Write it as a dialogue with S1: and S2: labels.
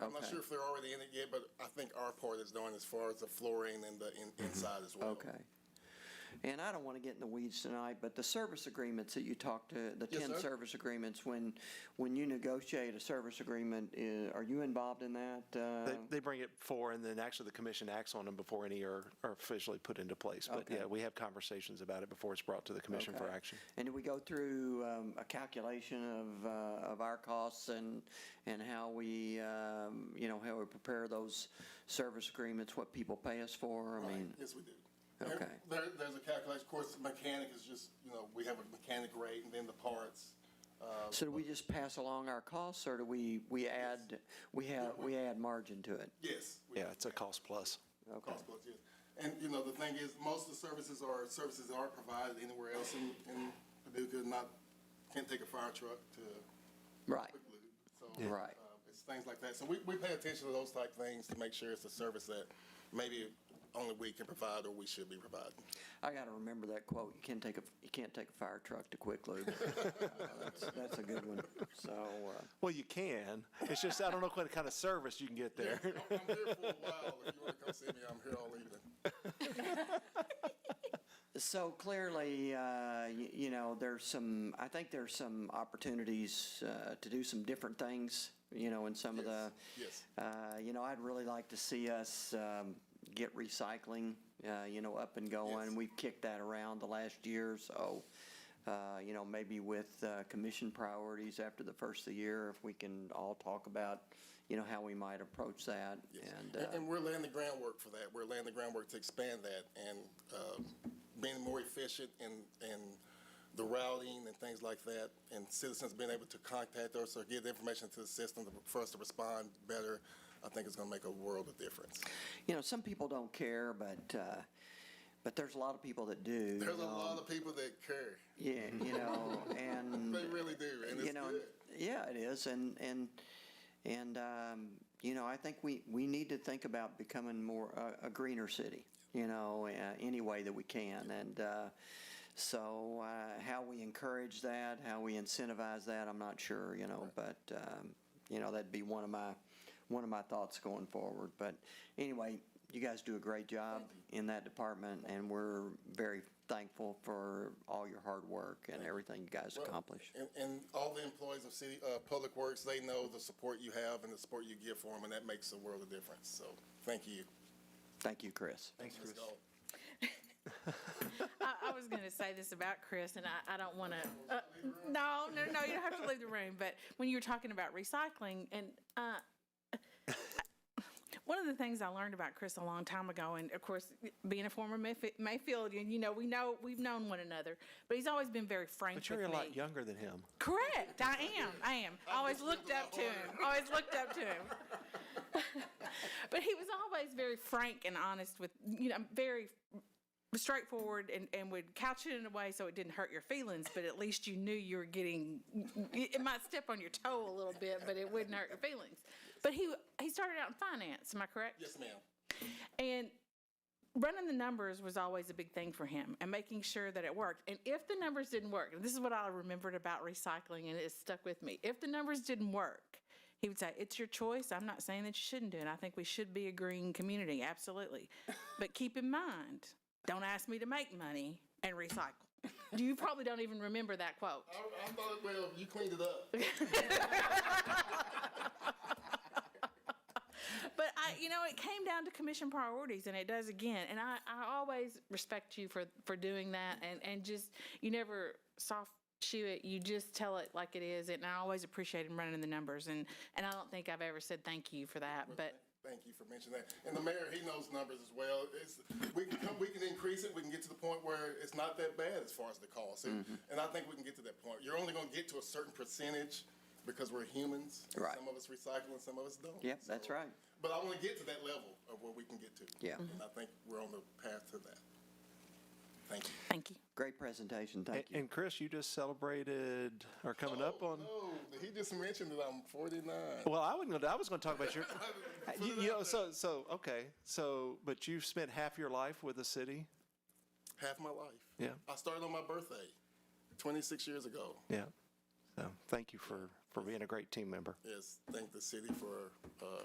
S1: I'm not
S2: Okay.
S1: sure if they're already in it yet, but I think our part is done as far as the flooring and the in- inside as well.
S2: Mm-hmm. Okay. And I don't want to get in the weeds tonight, but the service agreements that you talked to, the
S1: Yes,
S2: 10
S1: sir.
S2: service agreements, when, when you negotiate a service agreement, uh, are you involved in that?
S3: They,
S2: Uh,
S3: they bring it forward, and then actually the commission acts on them before any are, are officially put into place. But
S2: Okay.
S3: yeah, we have conversations about it before it's brought to the commission for
S2: Okay.
S3: action.
S2: And do we go through um, a calculation of, uh, of our costs and, and how we, um, you know, how we prepare those service agreements, what people pay us for? I
S1: Right.
S2: mean,
S1: Yes, we do.
S2: Okay.
S1: There, there's a calculation, of course, mechanic is just, you know, we have a mechanic rate and then the parts. uh,
S2: so do we just pass along our costs, or do we, we add, we have, we add margin to it?
S1: Yes. we
S3: Yeah,
S1: do.
S3: it's a cost plus.
S2: Okay.
S1: Cost plus, yes. And, you know, the thing is, most of the services are services that aren't provided anywhere else in, in Paducah, not, can't take a fire truck to
S2: Right.
S1: quick lube. So,
S2: Yeah. Right.
S1: uh, It's things like that. So we, we pay attention to those type things to make sure it's a service that maybe only we can provide or we should be providing.
S2: I got to remember that quote. You can't take a you can't take a fire truck to quick lube. Uh, that's, that's a good one. So uh,
S3: Well, you can. It's just, I don't know what kind of service you can get there.
S1: Yeah, I'm I'm here for a while. If you want to come see me, I'm here all evening.
S2: so clearly, uh, you, you know, there's some. I think there's some opportunities uh, to do some different things. You know, in some of the.
S1: Yes,
S2: Uh, you know, I'd really like to see us um, get recycling. Uh, you know, up and going.
S1: Yes.
S2: We've kicked that around the last year, so. Uh, you know, maybe with uh, commission priorities after the first of the year, if we can all talk about, you know, how we might approach that.
S1: yes.
S2: And,
S1: And,
S2: uh,
S1: and we're laying the groundwork for that. We're laying the groundwork to expand that and uh, being more efficient in, in the routing and things like that, and citizens being able to contact us or give the information to the system to- for us to respond better, I think is going to make a world of difference.
S2: you know, some people don't care, but, uh, but there's a lot of people that do.
S1: There's a
S2: um,
S1: lot of people that care.
S2: Yeah, you know, and.
S1: They really do, and it's
S2: you know,
S1: good.
S2: yeah, it is, and and and um, you know, I think we we need to think about becoming more uh, a greener city. You know, uh, any way that we can, and uh, so uh, how we encourage that, how we incentivize that, I'm not sure. You know, but um, you know, that'd be one of my one of my thoughts going forward. But anyway, you guys do a great job in that department, and we're very thankful for all your hard work and everything you guys
S1: Well,
S2: accomplish.
S1: And, and all the employees of city, uh, Public Works, they know the support you have and the support you give for them, and that makes a world of difference. So, thank you.
S2: Thank you, Chris.
S3: Thanks,
S1: Ms.
S3: Chris.
S1: Gold.
S4: I, I was going to say this about Chris, and I, I don't want to. Uh, no, no, no, you don't have to leave the room. But when you were talking about recycling, and uh, one of the things I learned about Chris a long time ago, and of course, being a former Mayf- Mayfieldian, you know, we know we've known one another, but he's always been very frank
S3: But you're a
S4: with
S3: lot
S4: me.
S3: younger than him.
S4: Correct. I am. I am. I always looked up to him. Always looked up to him. but he was always very frank and honest with, you know, very straightforward and, and would couch it in a way so it didn't hurt your feelings, but at least you knew you were getting, it it might step on your toe a little bit, but it wouldn't hurt your feelings. But he, he started out in finance, am I correct?
S1: Yes, ma'am.
S4: And running the numbers was always a big thing for him and making sure that it worked. And if the numbers didn't work, and this is what I remembered about recycling and it stuck with me. If the numbers didn't work, he would say, It's your choice. I'm not saying that you shouldn't do it. I think we should be a green community, absolutely. but keep in mind, don't ask me to make money and recycle. you probably don't even remember that quote.
S1: I, I thought, well, you cleaned it up.
S4: But I, you know, it came down to commission priorities, and it does again. And I, I always respect you for for doing that, and and just you never soft shoe it. You just tell it like it is, and I always appreciate him running the numbers. And and I don't think I've ever said thank you for that, but.
S1: Thank you for mentioning that. And the mayor, he knows numbers as well. It's, we can come, we can increase it, we can get to the point where it's not that bad as far as the cost. And,
S2: Mm-hmm.
S1: and I think we can get to that point. You're only gonna get to a certain percentage because we're humans. and
S2: Right.
S1: Some of us recycle and some of us don't.
S2: Yep, that's
S1: So-
S2: right.
S1: But I wanna get to that level of where we can get to.
S2: Yeah. Mhm.
S1: And I think we're on the path to that. Thank you.
S4: Thank you.
S2: Great presentation,
S3: And,
S2: thank you.
S3: and Chris, you just celebrated, or coming up on,
S1: Oh, no, he just mentioned that I'm forty-nine.
S3: well, I wasn't going to, oh. I was going to talk about your, you you know, so, so, okay. So, but you've spent half your life with the city?
S1: Half my life.
S3: Yeah.
S1: I started on my birthday, twenty-six years ago.
S3: Yeah. So thank you for for being a great team member.
S1: Yes, thank the city for uh,